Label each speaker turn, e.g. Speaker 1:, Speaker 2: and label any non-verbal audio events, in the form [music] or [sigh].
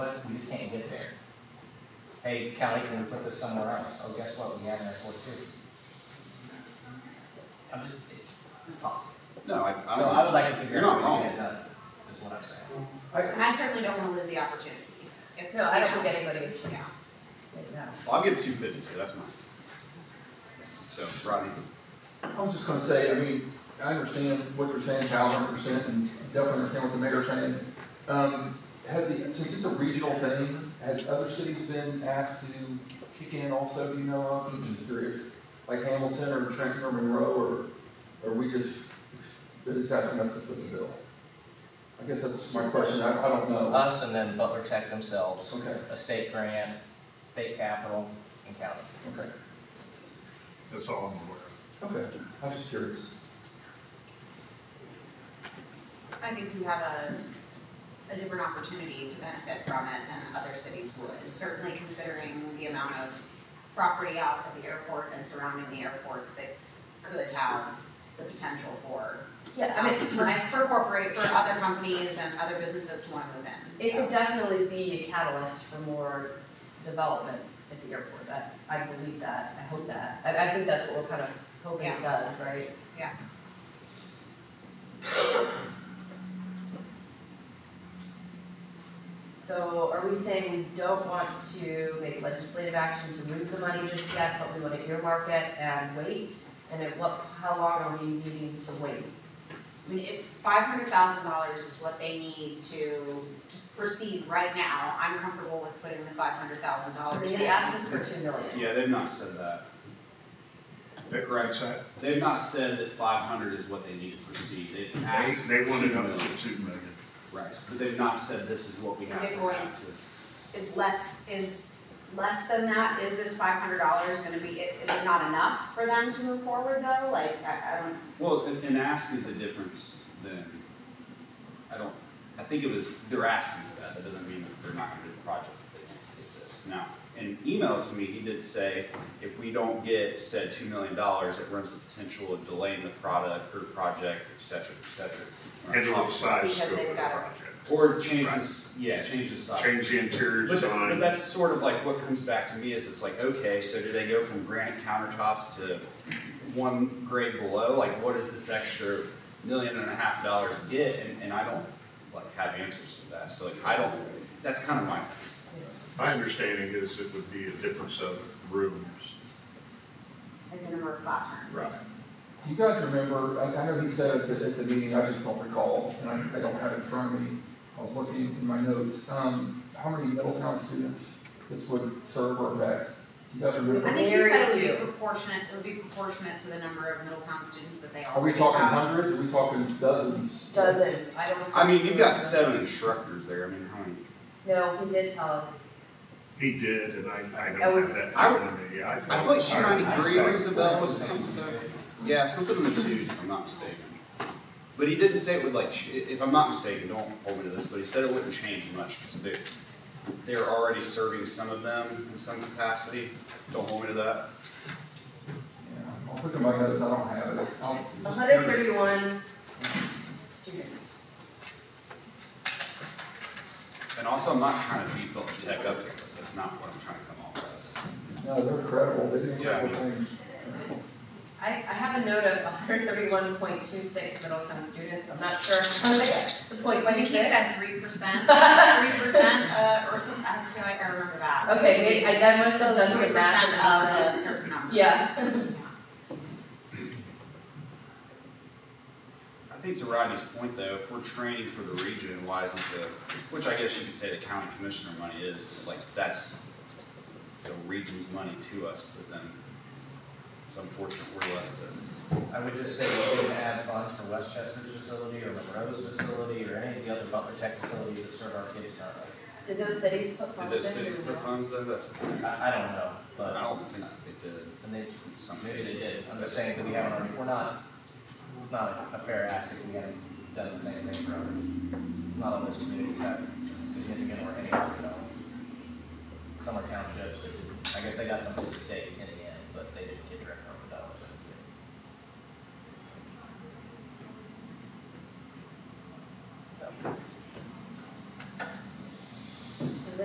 Speaker 1: can't get there. Hey, county, can we put this somewhere else? Oh, guess what, we have an airport too. I'm just, it's, it's possible.
Speaker 2: No, I,
Speaker 1: So I
Speaker 2: I,
Speaker 1: would like to figure
Speaker 2: You're
Speaker 1: out
Speaker 2: not
Speaker 1: how to
Speaker 2: wrong.
Speaker 1: get it done, is what I'm saying.
Speaker 3: And I certainly don't wanna lose the opportunity. If-
Speaker 4: No, I don't
Speaker 3: you know,
Speaker 4: think anybody is.
Speaker 3: Yeah.
Speaker 2: I'll give two fifty, so that's mine. So, Rodney,
Speaker 5: I was just gonna say, I mean, I understand what you're saying, Kyle, hundred percent, and definitely understand what the mayor's saying. Um, has the, since it's a regional thing, has other cities been asked to kick in also, do you know of? I'm just curious, like Hamilton or Trenton or Monroe, or, or we just, they're just asking us to foot the bill? I guess that's my question, I, I don't know.
Speaker 1: Us and then Butler Tech themselves,
Speaker 5: Okay,
Speaker 1: a state grant, state capital, and county.
Speaker 5: okay,
Speaker 6: That's all I'm aware of.
Speaker 5: okay, I'm just curious.
Speaker 3: I think you have a, a different opportunity to benefit from it than other cities would. Certainly considering the amount of property out of the airport and surrounding the airport that could have the potential for,
Speaker 4: Yeah, I [coughs] mean,
Speaker 3: for-
Speaker 4: I-
Speaker 3: for corporate, for other companies and other businesses to wanna move in.
Speaker 4: it
Speaker 3: so.
Speaker 4: could definitely be a catalyst for more development at the airport, that, I believe that, I hope that, I, I think that's what we're kind of hoping it does, right? So are we saying we don't want to make legislative action to move the money just yet, but we want to earmark it and wait? And at what, how long are we needing to wait?
Speaker 3: I mean, if five hundred thousand dollars is what they need to proceed right now, I'm comfortable with putting the five hundred thousand
Speaker 4: I
Speaker 3: dollars
Speaker 4: mean,
Speaker 3: in.
Speaker 4: they asked us for two million.
Speaker 2: yeah, they've not said that.
Speaker 6: That right side,
Speaker 2: They've not said that five hundred is what they need to proceed, they've
Speaker 6: they,
Speaker 2: asked.
Speaker 6: they wanted
Speaker 2: two
Speaker 6: up
Speaker 2: million.
Speaker 6: to two million.
Speaker 2: Right, but they've not said this is what we
Speaker 3: Is
Speaker 2: have to
Speaker 3: it going-
Speaker 2: have to.
Speaker 3: Is less, is less than that, is this five hundred dollars gonna be, i- is it not enough for them to move forward though? Like, I, I don't,
Speaker 2: Well, an, an ask is a difference than, I don't, I think it was, they're asking for that, that doesn't mean that they're not gonna do the project if they don't get this. Now, in email to me, he did say, if we don't get said two million dollars, it runs the potential of delaying the product or project, et cetera, et cetera. Or
Speaker 6: And the size
Speaker 3: Because
Speaker 6: scope
Speaker 3: they've
Speaker 6: of the
Speaker 3: got a-
Speaker 6: project.
Speaker 2: Or changes, yeah, changes the size.
Speaker 6: Change the interior
Speaker 2: But, th- but
Speaker 6: design.
Speaker 2: that's sort of like what comes back to me is it's like, okay, so do they go from granite countertops to one grade below? Like, what does this extra million and a half dollars get? And, and I don't like have answers for that. So like, I don't, that's kind of my,
Speaker 6: My understanding is it would be a difference of rooms.
Speaker 3: like the number of classrooms.
Speaker 5: Do you guys remember, I, I know he said at the, at the meeting, I just don't recall, and I, I don't have it in front of me, I was looking in my notes, um, how many Middletown students this would serve or affect? Do You guys
Speaker 3: I
Speaker 5: remember,
Speaker 3: think he said it would
Speaker 4: Very
Speaker 3: be
Speaker 4: few.
Speaker 3: proportionate, it would be proportionate to the number of Middletown students that they
Speaker 5: are we
Speaker 3: already have.
Speaker 5: talking hundreds, are we talking dozens?
Speaker 4: Dozens, I don't.
Speaker 2: I mean, you've got seven instructors there. I mean, how many?
Speaker 4: No, he did tell us.
Speaker 6: He did, and I, I
Speaker 4: Oh,
Speaker 6: don't have that. in
Speaker 2: I
Speaker 6: front of me. I
Speaker 2: I
Speaker 6: thought
Speaker 2: feel like
Speaker 6: it
Speaker 2: she
Speaker 6: was-
Speaker 2: might agree, Isabel, was it something that? Yeah, something in the twos, if I'm not mistaken. But he didn't say it would like, ch- if I'm not mistaken, don't hold me to this, but he said it wouldn't change much, because they, they're already serving some of them in some capacity. Don't hold me to that.
Speaker 5: Yeah, I'll look in my notes, I don't have it, I'll,
Speaker 4: hundred thirty-one students.
Speaker 2: And also, I'm not trying to beat Butler Tech up here, but that's not what I'm trying to come off as.
Speaker 5: no, they're incredible, they do
Speaker 2: Yeah, I
Speaker 5: incredible things.
Speaker 4: I, I have a note of hundred thirty-one point two six Middletown students, I'm not sure how they get the point
Speaker 3: I
Speaker 4: two
Speaker 3: think he
Speaker 4: six.
Speaker 3: said three percent, three percent, uh, or something, I feel like I remember that.
Speaker 4: Okay, maybe, I done must have done
Speaker 3: Three
Speaker 4: some
Speaker 3: percent
Speaker 4: math.
Speaker 3: of a certain number.
Speaker 4: Yeah. [laughs]
Speaker 2: I think to Rodney's point though, if we're training for the region, why isn't the, which I guess you could say the county commissioner money is, like, that's the region's money to us, but then it's unfortunate we're left to.
Speaker 1: I would just say we didn't add funds to Westchester's facility or Monroe's facility or any of the other Butler Tech facilities that serve our kids currently.
Speaker 4: Did those cities put
Speaker 2: Did
Speaker 4: funds in?
Speaker 2: those cities put funds though? That's, the thing. I
Speaker 1: I, I don't know,
Speaker 2: I
Speaker 1: but,
Speaker 2: don't think they did
Speaker 1: and they,
Speaker 2: in some
Speaker 1: maybe they
Speaker 2: cases.
Speaker 1: did, I'm just saying that we haven't already, we're not, it's not a fair ask if we haven't done the same thing for other, not all those communities have significant or any, you know, some are townships, I guess they got something to state, and